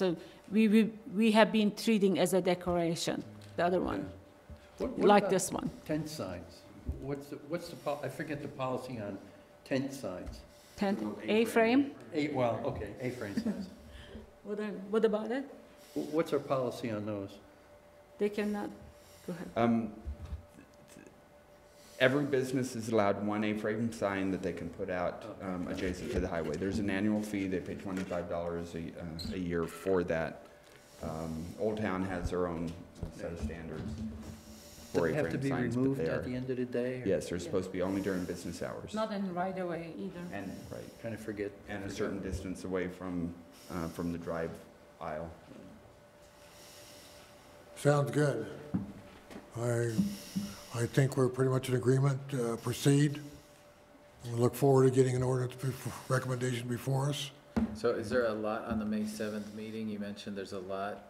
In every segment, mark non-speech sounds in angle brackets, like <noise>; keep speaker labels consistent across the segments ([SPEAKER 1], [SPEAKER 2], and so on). [SPEAKER 1] So we, we, we have been treating as a decoration, the other one,
[SPEAKER 2] What- what
[SPEAKER 1] like
[SPEAKER 2] about
[SPEAKER 1] this one.
[SPEAKER 2] Tent signs. What's, the what's the, pol- I forget the policy on tent signs.
[SPEAKER 1] Tent, A-frame?
[SPEAKER 2] Eight, well, okay, A-frame signs.
[SPEAKER 1] What, are- what about it?
[SPEAKER 2] Wh- What's our policy on those?
[SPEAKER 1] They cannot, go ahead.
[SPEAKER 3] Um, th- every business is allowed one A-frame sign that they can put out um, adjacent to the highway. There's an annual fee, they pay twenty-five dollars a, uh, a year for that. Um, Old Town has their own set of standards
[SPEAKER 2] Does
[SPEAKER 3] for
[SPEAKER 2] it have to
[SPEAKER 3] A-frame
[SPEAKER 2] be
[SPEAKER 3] signs, but
[SPEAKER 2] removed
[SPEAKER 3] they
[SPEAKER 2] at the
[SPEAKER 3] are,
[SPEAKER 2] end of the day? or-
[SPEAKER 3] yes, they're supposed to be only during business hours.
[SPEAKER 1] Not in right away either.
[SPEAKER 3] And, right,
[SPEAKER 2] Kind of forget.
[SPEAKER 3] and a certain distance away from, uh, from the drive aisle.
[SPEAKER 4] Sounds good. I, I think we're pretty much in agreement, uh, proceed. We look forward to getting an ordinance bef- recommendation before us.
[SPEAKER 5] So is there a lot on the May seventh meeting? You mentioned there's a lot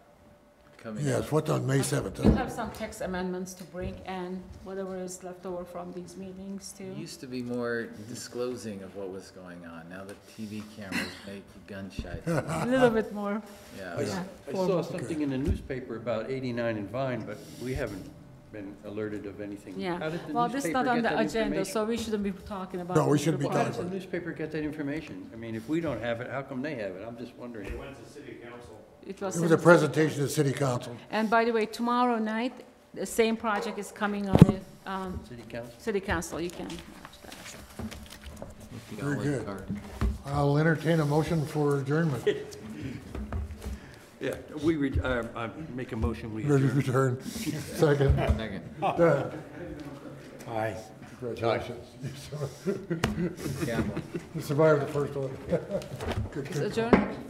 [SPEAKER 5] coming up.
[SPEAKER 4] Yes, what's on May
[SPEAKER 1] We
[SPEAKER 4] 7th?
[SPEAKER 1] have some text amendments to bring and whatever is left over from these meetings
[SPEAKER 5] You
[SPEAKER 1] too.
[SPEAKER 5] used to be more disclosing of what was going on. Now the TV cameras make you
[SPEAKER 4] <laughs>
[SPEAKER 5] gun shy.
[SPEAKER 1] A little bit more,
[SPEAKER 2] I
[SPEAKER 5] Yeah.
[SPEAKER 2] s-
[SPEAKER 1] Yeah,
[SPEAKER 2] I
[SPEAKER 1] formal.
[SPEAKER 2] saw something in the newspaper about 89 and Vine, but we haven't been alerted of anything. How
[SPEAKER 1] yeah.
[SPEAKER 2] did the
[SPEAKER 1] Well, this is
[SPEAKER 2] newspaper
[SPEAKER 1] not on
[SPEAKER 2] get
[SPEAKER 1] the
[SPEAKER 2] that
[SPEAKER 1] agenda,
[SPEAKER 2] information?
[SPEAKER 1] so we shouldn't be talking about.
[SPEAKER 4] No, we
[SPEAKER 1] it.
[SPEAKER 4] shouldn't be
[SPEAKER 2] How
[SPEAKER 1] Well,
[SPEAKER 2] does the newspaper get that information? I mean, if we don't have it, how come they have it? I'm just wondering.
[SPEAKER 1] It
[SPEAKER 4] It was a
[SPEAKER 1] was,
[SPEAKER 4] presentation to the city council.
[SPEAKER 1] and by the way, tomorrow night, the same project is coming on the, um,
[SPEAKER 2] City council?
[SPEAKER 1] city council, you can watch that.
[SPEAKER 4] Very good. I'll entertain a motion for adjournment.
[SPEAKER 2] Yeah, we, re- uh, I make a motion, we
[SPEAKER 4] <laughs> Ready to adjourn. Second.
[SPEAKER 5] Second.
[SPEAKER 4] Aye. Congratulations.
[SPEAKER 5] Campbell.
[SPEAKER 4] <laughs> You survived the first one.
[SPEAKER 1] It's adjourned?